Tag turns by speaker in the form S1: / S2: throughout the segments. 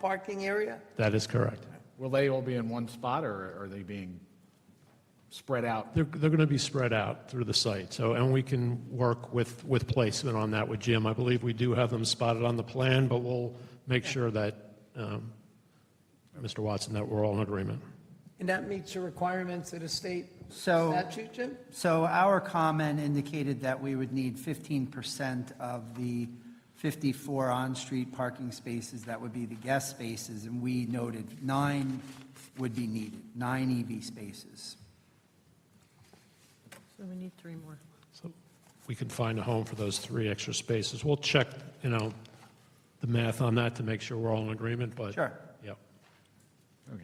S1: parking area?
S2: That is correct.
S3: Will they all be in one spot, or are they being spread out?
S2: They're, they're going to be spread out through the site, so, and we can work with, with placement on that with Jim. I believe we do have them spotted on the plan, but we'll make sure that, um, Mr. Watson, that we're all in agreement.
S1: And that meets the requirements of the state
S4: So-
S1: statute, Jim?
S4: So our comment indicated that we would need 15% of the 54 on-street parking spaces, that would be the guest spaces, and we noted nine would be needed, nine EV spaces.
S5: So we need three more.
S2: So we can find a home for those three extra spaces. We'll check, you know, the math on that to make sure we're all in agreement, but.
S4: Sure.
S2: Yep,
S3: Okay.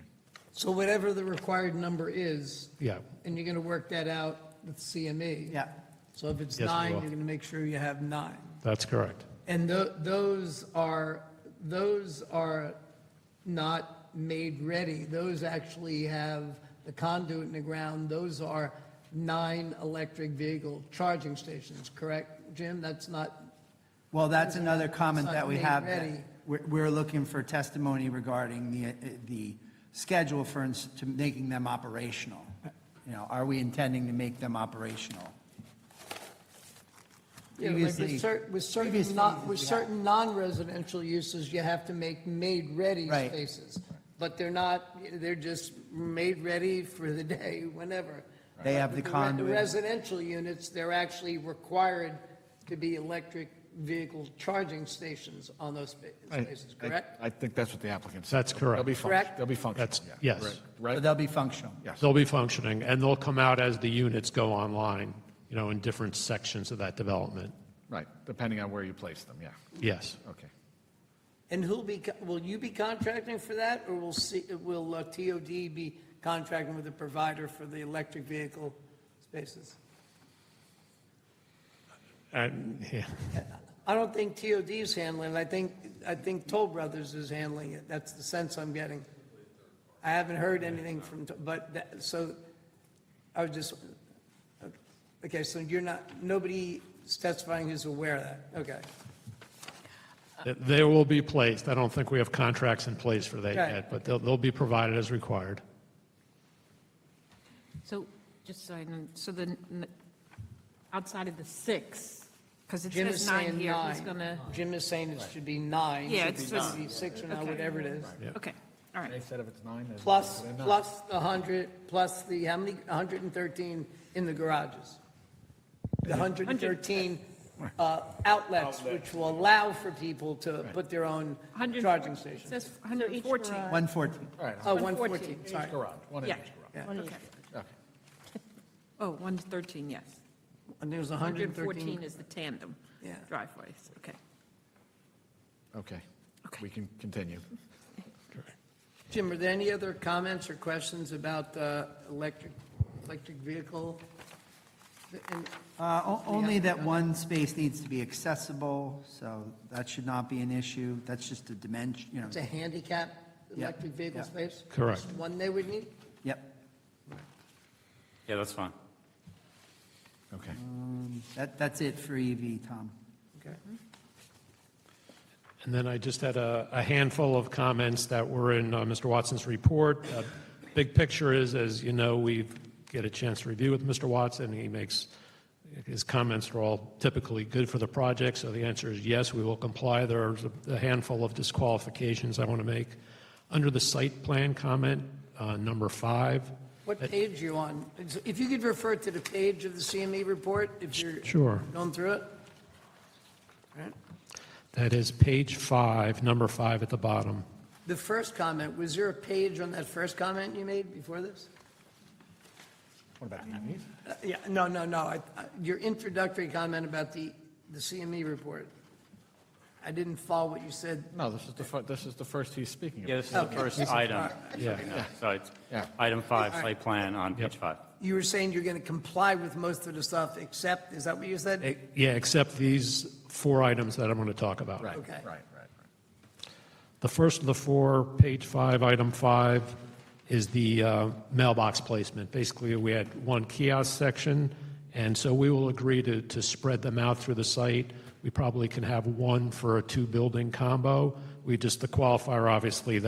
S1: So whatever the required number is,
S2: yeah,
S1: and you're going to work that out with CME?
S4: Yeah,
S1: So if it's
S2: Yes, we
S1: nine,
S2: will.
S1: you're going to make sure you have nine.
S2: that's correct.
S1: And tho- those are, those are not made ready. Those actually have the conduit in the ground. Those are nine electric vehicle charging stations, correct, Jim? That's not,
S4: well, that's another comment that we
S1: Made
S4: have. that
S1: ready.
S4: We're, we're looking for testimony regarding the, uh, the schedule for, ins- to making them operational. You know, are we intending to make them operational?
S1: you know, like with
S4: Previously-
S1: certain, with certain,
S4: previously
S1: not,
S4: uses
S1: with
S4: we have.
S1: certain non-residential uses, you have to make made-ready
S4: Right.
S1: spaces. But they're not, they're just made ready for the day, whenever.
S4: They have
S1: With
S4: the
S1: re-
S4: conduit.
S1: Residential units, they're actually required to be electric vehicle charging stations on those spa-
S3: I-
S1: spaces,
S3: I-
S1: correct?
S3: I think that's what the applicant said.
S2: That's correct.
S3: They'll be functional,
S1: Correct?
S3: they'll be functional,
S2: That's-
S3: yeah.
S2: yes.
S4: So
S3: Right, right?
S4: they'll be functional.
S2: They'll be functioning, and they'll come out as the units go online, you know, in different sections of that development.
S3: right, depending on where you place them, yeah,
S2: Yes.
S3: okay.
S1: And who'll be, co- will you be contracting for that, or will C, will uh, TOD be contracting with the provider for the electric vehicle spaces?
S2: And, Uh, yeah.
S1: I don't think TOD's handling it. I think, I think Toll Brothers is handling it. That's the sense I'm getting. I haven't heard anything from, Toll- but, that- so, I was just, okay, so you're not, nobody testifying is aware of that, okay.
S2: They will be placed. I don't think we have contracts in place for that
S1: Okay.
S2: yet, but they'll, they'll be provided as required.
S5: So, just so I know, so the, n- outside of the six, because it
S1: Jim is
S5: says nine
S1: saying
S5: here, who's
S1: nine.
S5: gonna?
S1: Jim is saying it should be nine.
S5: Yeah,
S1: should
S5: it's
S1: be
S5: supposed to
S1: nine, Six or nine, whatever it is.
S5: Okay, all right.
S3: They said if it's nine, there's.
S1: Plus, plus the 100, plus the, how many, 113 in the garages? The 113 uh, outlets, which will allow for people to put their own
S5: 100
S1: charging
S5: It
S1: stations.
S5: says 114.
S4: 114.
S3: All right,
S1: Oh,
S5: 114,
S1: 114, sorry.
S3: garage, one in each
S5: Yeah,
S3: garage,
S5: okay.
S3: okay.
S5: Oh, 113, yes.
S1: I think it was
S5: 114
S1: 113.
S5: is the tandem
S1: Yeah.
S5: driveways, okay.
S3: Okay.
S5: Okay.
S3: We can continue.
S1: Jim, are there any other comments or questions about uh, electric, electric vehicle? And
S4: Uh, o- Only that one space needs to be accessible, so that should not be an issue. That's just a dimension, you know.
S1: It's a handicap electric vehicle
S4: yeah.
S1: space?
S2: Correct.
S1: Just One they would need?
S4: Yep,
S6: Yeah, that's fine.
S3: Okay.
S4: that, that's it for EV, Tom.
S1: Okay.
S2: And then I just had a a handful of comments that were in uh, Mr. Watson's report. Uh, Big picture is, as you know, we get a chance to review with Mr. Watson. He makes, his comments are all typically good for the project, so the answer is yes, we will comply. There's a- a handful of disqualifications I want to make. Under the site plan comment, uh, number five.
S1: What page you on? If you could refer to the page of the CME report, if you're
S2: Sure.
S1: going through it?
S2: That is page five, number five at the bottom.
S1: The first comment, was there a page on that first comment you made before this?
S3: What about these?
S1: Uh, Yeah, no, no, no, I- I- your introductory comment about the, the CME report. I didn't follow what you said.
S3: No, this is the, fir- this is the first he's speaking
S6: Yeah,
S3: about.
S6: this is the
S1: Okay.
S6: first item.
S2: Yeah.
S6: No, So it's
S3: Yeah.
S6: item five,
S1: All right.
S6: site plan on
S2: Yep.
S6: page five.
S1: You were saying you're going to comply with most of the stuff except, is that what you said?
S2: Eh, Yeah, except these four items that I'm going to talk about.
S3: Right,
S1: Okay.
S3: right, right. right.
S2: The first of the four, page five, item five, is the uh, mailbox placement. Basically, we had one kiosk section, and so we will agree to, to spread them out through the site. We probably can have one for a two-building combo. we just, the qualifier, obviously, that